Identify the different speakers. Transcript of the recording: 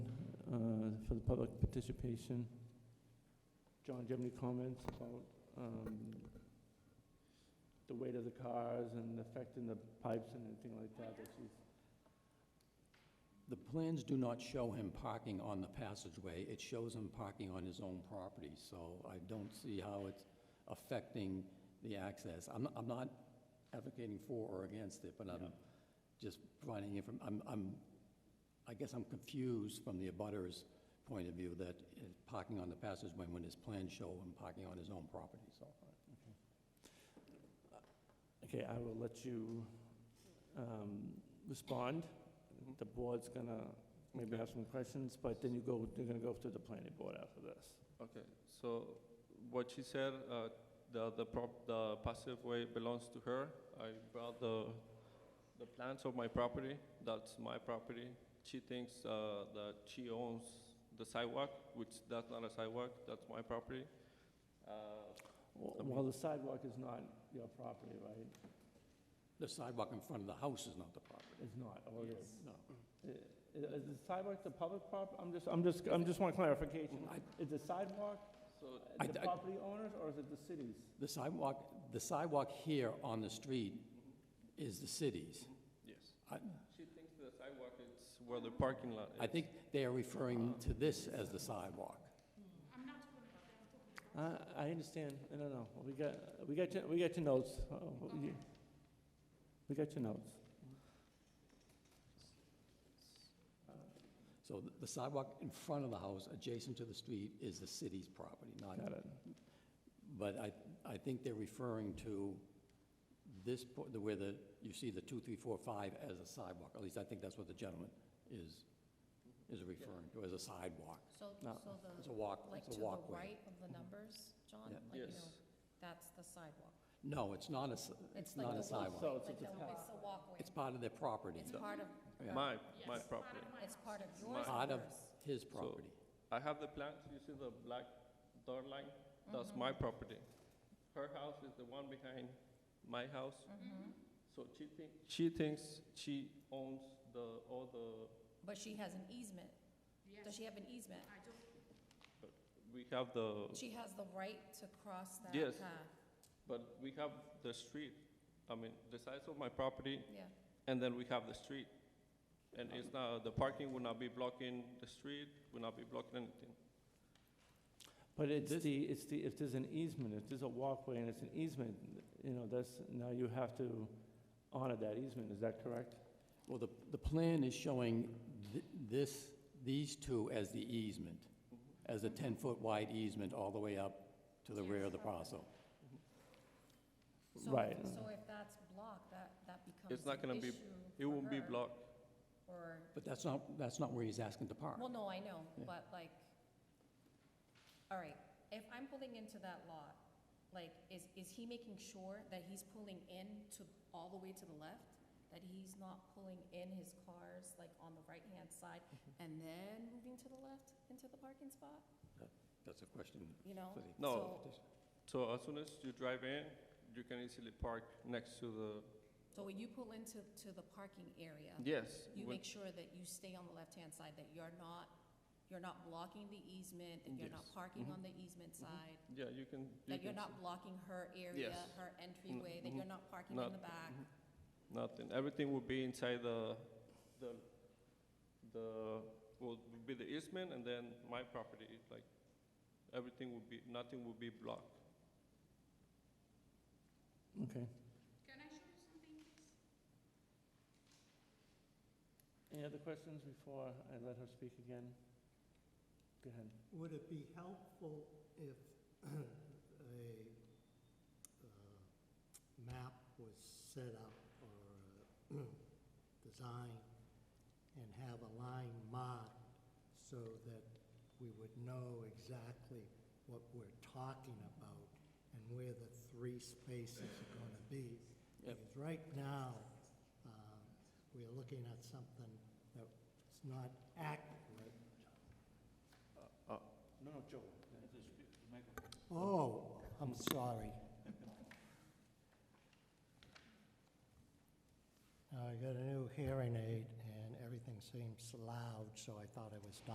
Speaker 1: uh, for the public participation. John, do you have any comments about um, the weight of the cars and affecting the pipes and anything like that? that she's-
Speaker 2: The plans do not show him parking on the passageway. It shows him parking on his own property, so I don't see how it's affecting the access. I'm, I'm not advocating for or against it, but I'm just providing inform, I'm, I'm, I guess I'm confused from the abutter's point of view that it's parking on the passageway when his plans show him parking on his own property, so.
Speaker 1: Okay, I will let you um, respond. The board's gonna maybe have some questions, but then you go, they're gonna go to the planning board after this.
Speaker 3: Okay, so what she said, uh, the, the prop, the passive way belongs to her. I brought the, the plans of my property, that's my property. She thinks, uh, that she owns the sidewalk, which that's not a sidewalk, that's my property. Uh,
Speaker 1: Wh- While the sidewalk is not your property, right?
Speaker 2: The sidewalk in front of the house is not the property.
Speaker 1: It's not, or it is?
Speaker 2: No.
Speaker 1: I- Is the sidewalk the public prop, I'm just, I'm just, I'm just want clarification.
Speaker 2: I-
Speaker 1: Is the sidewalk
Speaker 3: So,
Speaker 2: I-
Speaker 1: the
Speaker 2: I-
Speaker 1: property owners or is it the city's?
Speaker 2: The sidewalk, the sidewalk here on the street is the city's.
Speaker 3: yes,
Speaker 2: I,
Speaker 3: she thinks the sidewalk is where the parking lot is.
Speaker 2: I think they are referring to this as the sidewalk.
Speaker 1: I, Uh, I understand, I don't know, we got, we got your, we got your notes. Uh, you- We got your notes. Uh,
Speaker 2: So th- the sidewalk in front of the house, adjacent to the street, is the city's property, not,
Speaker 1: Got it.
Speaker 2: but I, I think they're referring to this, po- the- where the, you see the two, three, four, five as a sidewalk. At least I think that's what the gentleman is, is referring to, as a sidewalk.
Speaker 4: So,
Speaker 1: No.
Speaker 4: so
Speaker 2: It's a
Speaker 4: the,
Speaker 2: walk,
Speaker 4: like
Speaker 2: it's
Speaker 4: to
Speaker 2: a
Speaker 4: the
Speaker 2: walkway. Mm-hmm.
Speaker 4: right of the numbers, John?
Speaker 2: Yeah.
Speaker 4: Like, you know,
Speaker 3: Yes,
Speaker 4: That's the sidewalk.
Speaker 2: No, it's not a, s- it's
Speaker 4: It's like
Speaker 2: not a
Speaker 4: the
Speaker 2: sidewalk.
Speaker 3: Oh,
Speaker 1: So
Speaker 4: walkway,
Speaker 1: it's just
Speaker 4: like the,
Speaker 1: a
Speaker 4: it's the walkway.
Speaker 2: It's part of their property.
Speaker 4: It's part of,
Speaker 2: Yeah.
Speaker 3: my, my property.
Speaker 4: it's part of yours
Speaker 2: Part
Speaker 4: and
Speaker 2: of
Speaker 4: hers.
Speaker 2: his property.
Speaker 3: I have the plans, you see the black dot line?
Speaker 4: Mm-hmm.
Speaker 3: That's my property. Her house is the one behind my house.
Speaker 4: Mm-hmm.
Speaker 3: So she thinks, she thinks she owns the, all the,
Speaker 4: But she has an easement. Does she have an easement?
Speaker 3: we have the,
Speaker 4: She has the right to cross that
Speaker 3: Yes.
Speaker 4: path.
Speaker 3: but we have the street. I mean, the size of my property,
Speaker 4: Yeah,
Speaker 3: and then we have the street. And it's not, the parking will not be blocking the street, will not be blocking anything.
Speaker 1: But it's the, it's the, if there's an easement, if there's a walkway and it's an easement, you know, that's, now you have to honor that easement, is that correct?
Speaker 2: Well, the, the plan is showing thi- this, these two as the easement, as a 10-foot wide easement all the way up to the rear of the parcel.
Speaker 4: so,
Speaker 1: Right.
Speaker 4: so if that's blocked, that, that becomes
Speaker 3: It's not
Speaker 4: an
Speaker 3: gonna be,
Speaker 4: issue
Speaker 3: it
Speaker 4: for
Speaker 3: won't be
Speaker 4: her,
Speaker 3: blocked.
Speaker 4: Or,
Speaker 2: But that's not, that's not where he's asking to park.
Speaker 4: well, no, I know,
Speaker 2: Yeah.
Speaker 4: but like, all right, if I'm pulling into that lot, like, is, is he making sure that he's pulling in to, all the way to the left? That he's not pulling in his cars, like, on the right-hand side
Speaker 3: Mm-hmm.
Speaker 4: and then moving to the left into the parking spot,
Speaker 2: That's a question.
Speaker 4: you know?
Speaker 2: for the-
Speaker 3: No.
Speaker 4: So-
Speaker 3: So as soon as you drive in, you can easily park next to the
Speaker 4: So when you pull into, to the parking area,
Speaker 3: Yes.
Speaker 4: you
Speaker 3: when-
Speaker 4: make sure that you stay on the left-hand side, that you're not, you're not blocking the easement, that you're not
Speaker 3: Yes. Mm-hmm.
Speaker 4: parking on the easement side,
Speaker 3: Yeah, you can. you
Speaker 4: that you're
Speaker 3: can
Speaker 4: not
Speaker 3: see.
Speaker 4: blocking her area,
Speaker 3: Yes. Mm-hmm.
Speaker 4: her entryway, that you're not parking
Speaker 3: Not- Mm-hmm.
Speaker 4: in the back.
Speaker 3: Nothing, everything will be inside the, the, the, will be the easement and then my property, like, everything will be, nothing will be blocked.
Speaker 1: Okay. Can I show you something, please? Any other questions before I let her speak again? Go ahead.
Speaker 5: Would it be helpful if a uh, map was set up or uh, designed and have a line marked so that we would know exactly what we're talking about and where the three spaces are going to be?
Speaker 2: Yep.
Speaker 5: Because right now, um, we're looking at something that's not accurate.
Speaker 1: No, no, Joe.
Speaker 5: Oh, I'm sorry. I got a new hearing aid, and everything seems loud, so I thought I was done.